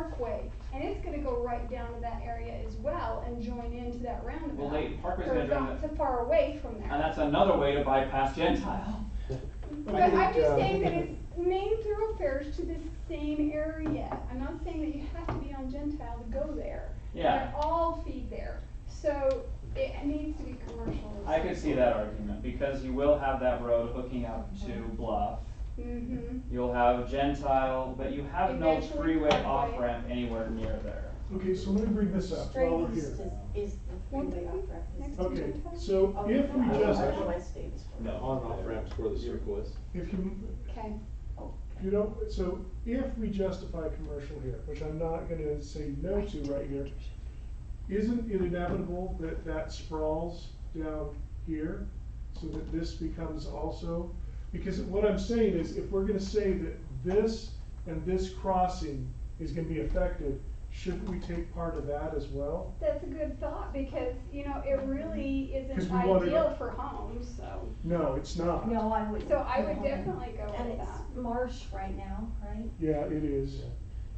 Parkway, and it's gonna go right down to that area as well and join into that roundabout. Well, wait, Parkway's So gonna it's join not the- too far away from there. And that's another way to bypass Gentile. But I'm uh, just saying that it's main thoroughfares to the same area. I'm not saying that you have to be on Gentile to go there. Yeah. They all feed there, so it needs to be commercial. I could see that argument, because you will have that road hooking up to Bluff. Mm-hmm. You'll have Gentile, but you have no Eventually freeway Parkway. off-ramp anywhere near there. Okay, so let me bring this uh, up Straight while we're east is, here. is the Won't freeway it off be next ramp. to Okay, Gentile? so Oh, if we just, I don't know why state is for it. On and off ramps where the circle is. if you, Okay, Oh. you know, so if we justify commercial here, which I'm not gonna say no to right here, isn't it inevitable that that sprawls down here so that this becomes also? Because what I'm saying is if we're gonna say that this and this crossing is gonna be affected, shouldn't we take part of that as well? that's a good thought, because, you know, it really 'Cause isn't we wanted- ideal for homes, so. No, it's not. No, I would. So I would definitely go And with it's that. marsh right now, right? Yeah, it is.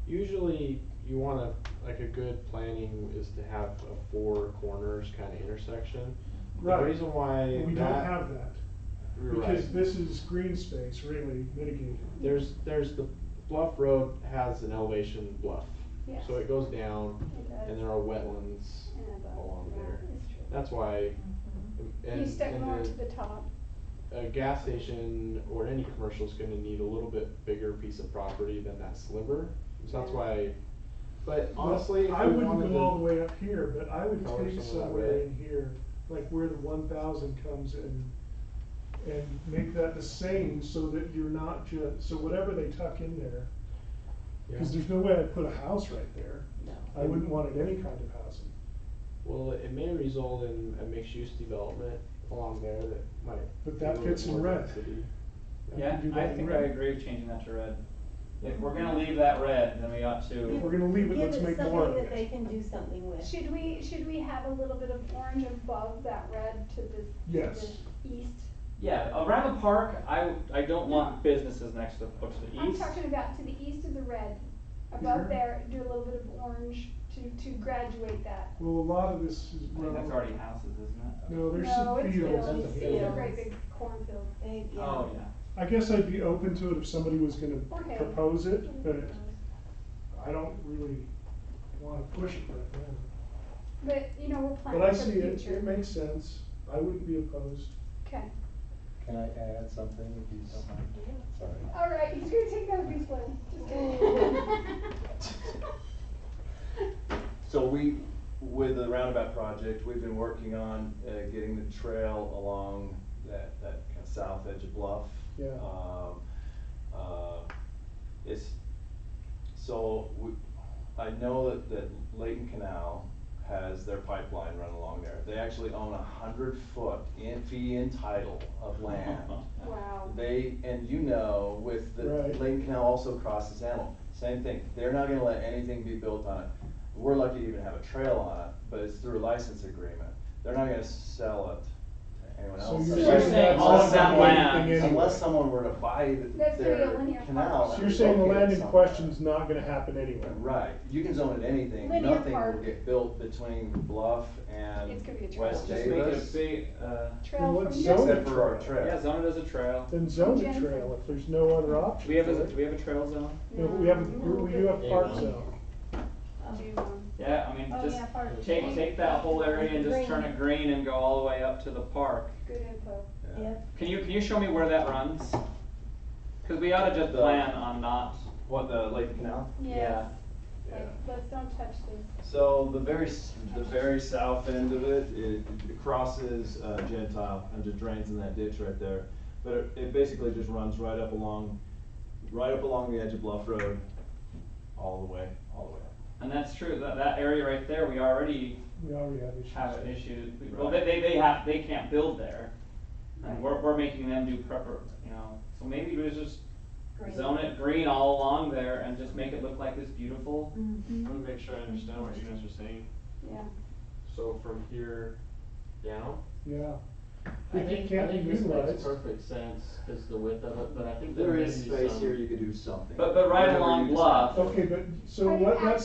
Usually you wanna, like a good planning is to have a four corners kinda intersection. The Right. reason why that. We don't have that. You're right. Because this is green space really mitigated. There's, there's the bluff road has an elevation bluff. Yes. So it goes down It does. and there are wetlands And above, along yeah, there. it's true. That's why. and- You step and more the- to the top. a gas station or any commercial is gonna need a little bit bigger piece of property than that sliver. So that's why, but honestly, if I we wouldn't wanted go all the to, way up here, but I would Color take some of that somewhere red. in here, like where the one thousand comes in. And make that the same so that you're not ju- so whatever they tuck in there, Yeah. cause there's no way I'd put a house right there. No. I wouldn't want it any kind of housing. well, it may result in a mixed-use development along there that might. But be that a little fits bit in more red. density. Yeah, do I that in think I red. agree with changing that to red. If we're gonna leave that red, then we ought If to, we're gonna leave it, let's make more of Give it something that they it. can do something with. Should we, should we have a little bit of orange above that red to the, to Yes. the east? yeah, around the park, I, I don't want businesses next to, push the I'm east. talking about to the east of the red, above Here? there, do a little bit of orange to, to graduate that. Well, a lot of this is. I think that's already houses, isn't it? No, there's No, some it's fields. fields, That's a it's a field. great big cornfield. They, yeah. Oh, yeah. I guess I'd be open to it if somebody was gonna Okay. propose it, but I don't really wanna push it right now. But, you know, we're planning But I for see the it, future. it makes sense, I wouldn't be opposed. Okay, Can I add something if you don't mind? Sorry. all right, he's gonna take that piece one, just Oh, kidding. So we, with the roundabout project, we've been working on uh, getting the trail along that, that kind of south edge of Bluff. Yeah. Um, uh, It's, so we, I know that, that Leighton Canal has their pipeline run along there. They actually own a hundred foot in, fee-in title of land. Wow. They, and you know, with the, Right. Lane Canal also crosses Animal, same thing, they're not gonna let anything be built on it. We're lucky to even have a trail on it, but it's through a license agreement, they're not gonna sell it to anyone So else. you're You're Unless- saying all of that unless land. someone- Unless someone were to buy the- That's gonna be a their linear Oh, canal. park. So and you're saying the relocate it land in somewhere. question's not gonna happen anyway? Right, you can zone it anything, Linear nothing will park. get built between Bluff and It's gonna be a trail. West Just make it a Davis. big, uh, Well, Trail let's from zone here. it. Except for our trail. yeah, zone it as a trail. Then zone the Jensen. trail if there's no other option. We have, a- for do it. we have a trail zone? No, but we have, a- we do have a park Yeah. zone. Do, um, Yeah, I mean, Oh, just yeah, part of take, it. take that whole area and just turn it green and go all the way up to the park. Good info. Yeah. Yep. Can you, can you show me where that runs? Cause we oughta just The- plan on not, What, the Lake Canal? yeah. Like, let's don't touch this. So the very, s- the very south end of it, it it crosses uh, Gentile and just drains in that ditch right there. But it, it basically just runs right up along, right up along the edge of Bluff Road, all the way, all the way up. And that's true, that, that area right there, we already We already have issues. have an issue, well, they, they, they have, they can't build there. And we're, we're making them do prepper, you know, so maybe we just Green. zone it green all along there and just make it look like this beautiful. Mm-hmm. Mhm. Let me make sure I understand what you guys are saying. Yeah. So from here down, Yeah, If I it think, I can't think be this makes utilized. perfect sense, cause the width of it, but I think there There may be is some. space here, you could do something. But- but right Whatever along you decide. Bluff, Okay, but, so Are you what, act- let's